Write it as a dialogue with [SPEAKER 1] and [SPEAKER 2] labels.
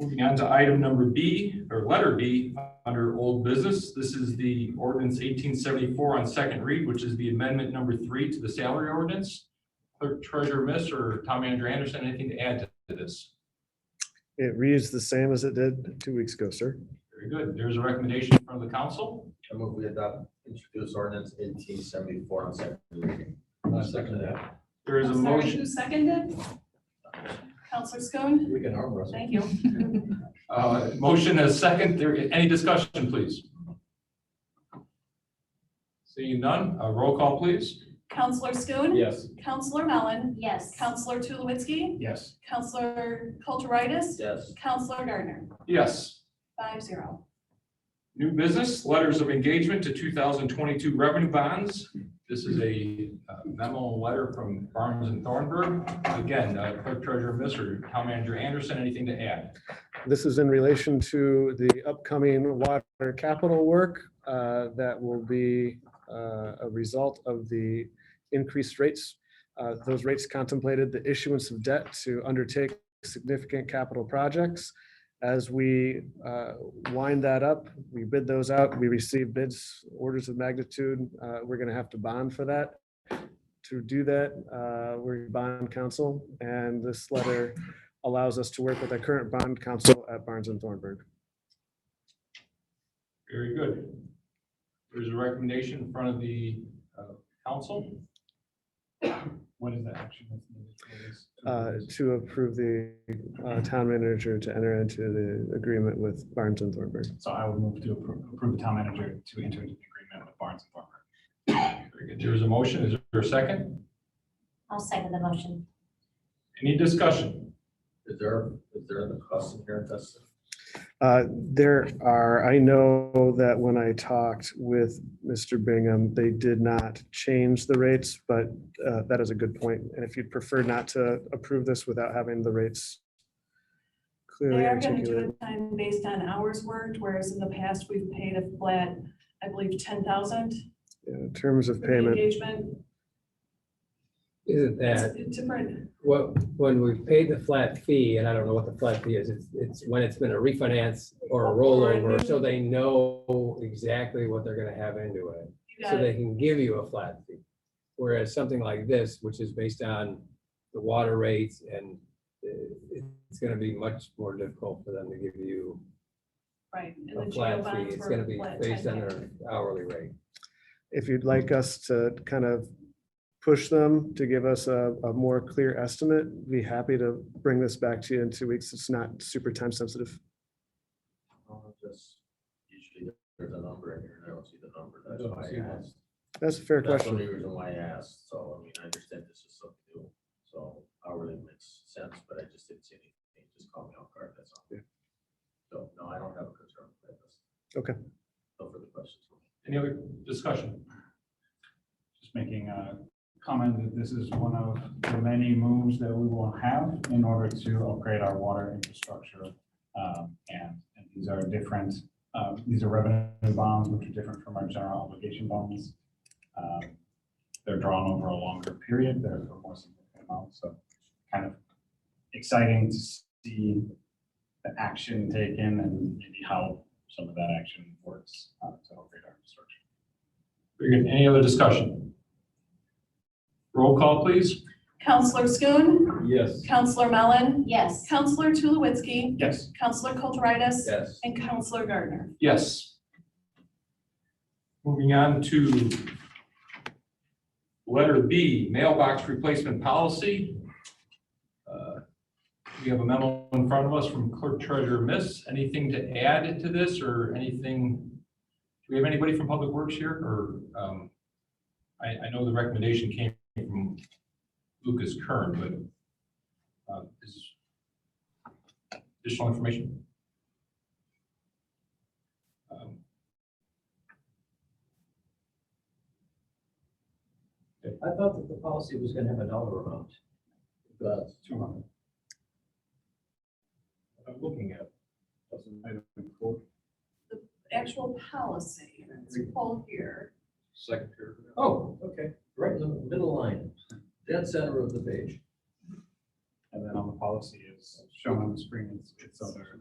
[SPEAKER 1] Moving on to item number B, or letter B, under old business. This is the ordinance eighteen seventy-four on second read, which is the amendment number three to the salary ordinance. Clerk Treasurer Miss or Tom Andrew Anderson, anything to add to this?
[SPEAKER 2] It reads the same as it did two weeks ago, sir.
[SPEAKER 1] Very good. There's a recommendation from the council.
[SPEAKER 3] I move we adopt, introduce ordinance eighteen seventy-four on second reading.
[SPEAKER 1] second There is a
[SPEAKER 4] I'm Oh, sorry,
[SPEAKER 1] motion.
[SPEAKER 4] Who seconded? Counselor Schoen,
[SPEAKER 3] We can arm wrestle.
[SPEAKER 4] thank you.
[SPEAKER 1] Uh, Motion as second, there, any discussion, please? Seeing none, uh, roll call, please.
[SPEAKER 4] Counselor Schoen,
[SPEAKER 3] Yes.
[SPEAKER 4] Counselor Mellon,
[SPEAKER 5] Yes.
[SPEAKER 4] Counselor Tulowitzki,
[SPEAKER 1] Yes.
[SPEAKER 4] Counselor Kulturitis,
[SPEAKER 3] Yes.
[SPEAKER 4] Counselor Gardner,
[SPEAKER 1] Yes.
[SPEAKER 4] five zero.
[SPEAKER 1] New business, letters of engagement to two thousand twenty-two revenue bonds. This is a uh, memo and letter from Barnes and Thornburg. Again, uh, Clerk Treasurer Mr. Town Manager Anderson, anything to add?
[SPEAKER 2] This is in relation to the upcoming water capital work uh, that will be uh, a result of the increased rates. Uh, Those rates contemplated the issuance of debt to undertake significant capital projects. As we uh, wind that up, we bid those out, we receive bids, orders of magnitude. uh, We're going to have to bond for that. To do that, uh, we're bond council, and this letter allows us to work with our current bond counsel at Barnes and Thornburg.
[SPEAKER 1] Very good. There's a recommendation in front of the uh, council.
[SPEAKER 6] What is the action that's needed for this?
[SPEAKER 2] uh,
[SPEAKER 1] Mm-hmm.
[SPEAKER 2] to approve the uh, town manager to enter into the agreement with Barnes and Thornburg.
[SPEAKER 6] So I would move to appro- approve the town manager to enter into an agreement with Barnes and Thornburg.
[SPEAKER 1] Very good. There's a motion. Is there a second?
[SPEAKER 5] I'll second the motion.
[SPEAKER 1] Any discussion?
[SPEAKER 3] Is there, is there the cost inherent that's?
[SPEAKER 2] Uh, There are, I know that when I talked with Mr. Bingham, they did not change the rates, but uh, that is a good point. And if you'd prefer not to approve this without having the rates clearly
[SPEAKER 4] They are gonna do
[SPEAKER 2] articulated.
[SPEAKER 4] it time based on hours worked, whereas in the past, we've paid a flat, I believe, ten thousand
[SPEAKER 2] In terms of
[SPEAKER 4] for the
[SPEAKER 2] payment,
[SPEAKER 4] engagement.
[SPEAKER 7] Isn't
[SPEAKER 4] It's
[SPEAKER 7] that,
[SPEAKER 4] it's different,
[SPEAKER 7] what, when we've paid the flat fee, and I don't know what the flat fee is, it's, it's when it's been a refinance or a rollover, so they know exactly what they're gonna have into it.
[SPEAKER 4] you got
[SPEAKER 7] So
[SPEAKER 4] it.
[SPEAKER 7] they can give you a flat fee. Whereas something like this, which is based on the water rates and uh, it's gonna be much more difficult for them to give you
[SPEAKER 4] right. and the
[SPEAKER 7] a
[SPEAKER 4] jail
[SPEAKER 7] flat fee.
[SPEAKER 4] bonds
[SPEAKER 7] It's
[SPEAKER 4] were
[SPEAKER 7] gonna be
[SPEAKER 4] flat
[SPEAKER 7] based on
[SPEAKER 4] 10K.
[SPEAKER 7] their hourly rate.
[SPEAKER 2] if you'd like us to kind of push them to give us a, a more clear estimate, be happy to bring this back to you in two weeks. It's not super time sensitive.
[SPEAKER 3] just Usually there's a number in here, and I don't see the number, that's why I asked.
[SPEAKER 2] That's a fair
[SPEAKER 3] That's the
[SPEAKER 2] question.
[SPEAKER 3] only reason why I asked, so, I mean, I understand this is something new, so hourly makes sense, but I just didn't see anything, It just caught me off guard, that's all.
[SPEAKER 2] Yeah.
[SPEAKER 3] So, no, I don't have a concern with this.
[SPEAKER 2] Okay.
[SPEAKER 3] No further questions.
[SPEAKER 1] Any other discussion?
[SPEAKER 6] Just making a comment that this is one of the many moves that we will have in order to upgrade our water infrastructure. Um, And and these are different, uh, these are revenue bonds, which are different from our general obligation bonds. Um, They're drawn over a longer period, they're a more significant amount, so kind of exciting to see the action taken and maybe how some of that action works uh, to upgrade our infrastructure.
[SPEAKER 1] Very good. Any other discussion? Roll call, please.
[SPEAKER 4] Counselor Schoen,
[SPEAKER 3] Yes.
[SPEAKER 4] Counselor Mellon,
[SPEAKER 5] Yes.
[SPEAKER 4] Counselor Tulowitzki,
[SPEAKER 6] Yes.
[SPEAKER 4] Counselor Kulturitis,
[SPEAKER 3] Yes.
[SPEAKER 4] and Counselor Gardner.
[SPEAKER 1] Yes. Moving on to letter B, mailbox replacement policy. Uh, We have a memo in front of us from clerk treasurer miss. Anything to add to this or anything? Do we have anybody from Public Works here or? um, I, I know the recommendation came from Lucas Kern, but uh, is additional information? Um,
[SPEAKER 3] I thought that the policy was gonna have a dollar amount. But.
[SPEAKER 6] Two hundred.
[SPEAKER 1] I'm looking at.
[SPEAKER 4] Actual policy, let's pull here.
[SPEAKER 3] Second paragraph. Oh, okay, right in the middle line, dead center of the page.
[SPEAKER 6] And then on the policy is shown on the screen, it's, it's other